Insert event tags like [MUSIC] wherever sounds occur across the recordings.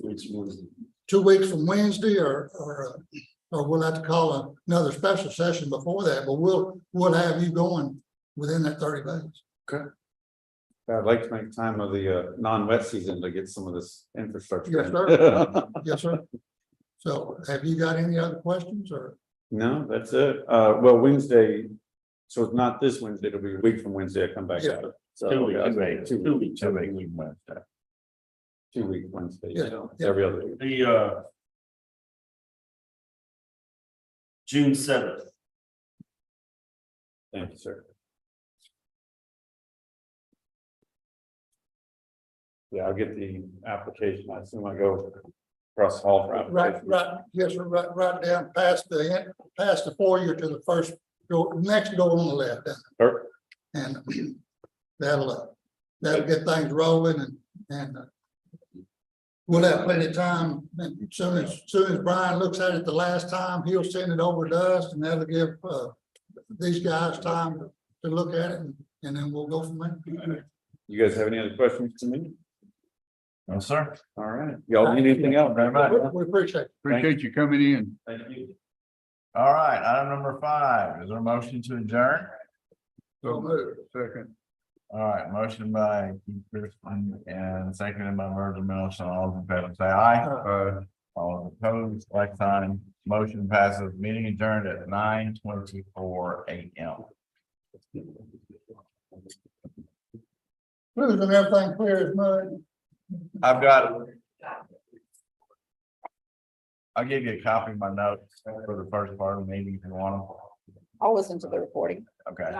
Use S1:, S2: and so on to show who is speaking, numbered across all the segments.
S1: Which was,
S2: two weeks from Wednesday or, or, uh, or we'll have to call another special session before that, but we'll, we'll have you going within that thirty days.
S1: I'd like to make time of the uh non-wet season to get some of this infrastructure.
S2: Yes,
S1: in.
S2: Yes, sir. So have you got any other questions or?
S1: [LAUGHS] No, that's it. Uh, well, Wednesday, so it's not this Wednesday, it'll be a week from Wednesday I come back.
S2: Yeah.
S1: So,
S3: Two
S1: yeah,
S3: weeks, right,
S1: Two,
S3: two weeks, two weeks.
S1: two week Wednesday.
S2: Yeah, yeah.
S1: Every other week.
S3: The, uh. June seventh,
S1: Thank you, sir. Yeah, I'll get the application. I assume I go across the hall for
S2: Right,
S1: application.
S2: right, yes, sir, right, right down past the, en- past the foyer to the first door, next door on the left.
S1: Or-
S2: And [CLEARS THROAT] that'll, uh, that'll get things rolling and, and uh, we'll have plenty of time. And soon as, soon as Brian looks at it the last time, he'll send it over to us and that'll give, uh, these guys time to look at it and- and then we'll go from there.
S1: You guys have any other questions to me?
S3: no, sir.
S1: All right. Y'all need anything else?
S3: Very much.
S2: We- We appreciate it.
S4: Appreciate you coming in.
S1: Thank you.
S3: All right, item number five, is there a motion to adjourn?
S2: So moved.
S4: Second.
S3: All right, motion by Keith Christian and seconded by Virgil Milson, all in favor, say aye.
S4: Uh,
S3: All opposed, like sign, motion passes, meeting adjourned at nine twenty-four AM.
S2: Really, and everything clear as mud.
S3: I've got. I'll give you a copy of my notes for the first part of the meeting if you want
S5: I'll listen to the recording.
S3: them. Okay.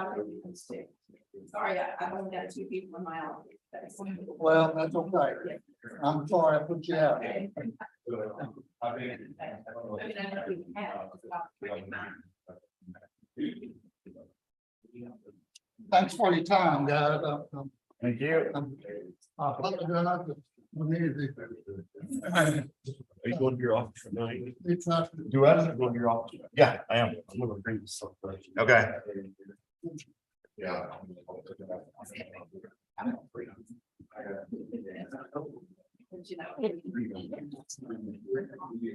S5: Sorry, I, I only got two people in my office.
S2: Well, that's okay. I'm sorry I put you out.
S5: I mean, I know we have, it's about three months.
S2: Thanks for your time, guys. I'm- I'm-
S3: Thank you.
S2: I'm- I apologize. We need to-
S3: Are you going to your office tonight?
S2: It's not.
S3: Do I go to your office? Yeah, I am. I'm gonna bring something. Okay. Yeah.
S5: But, You know.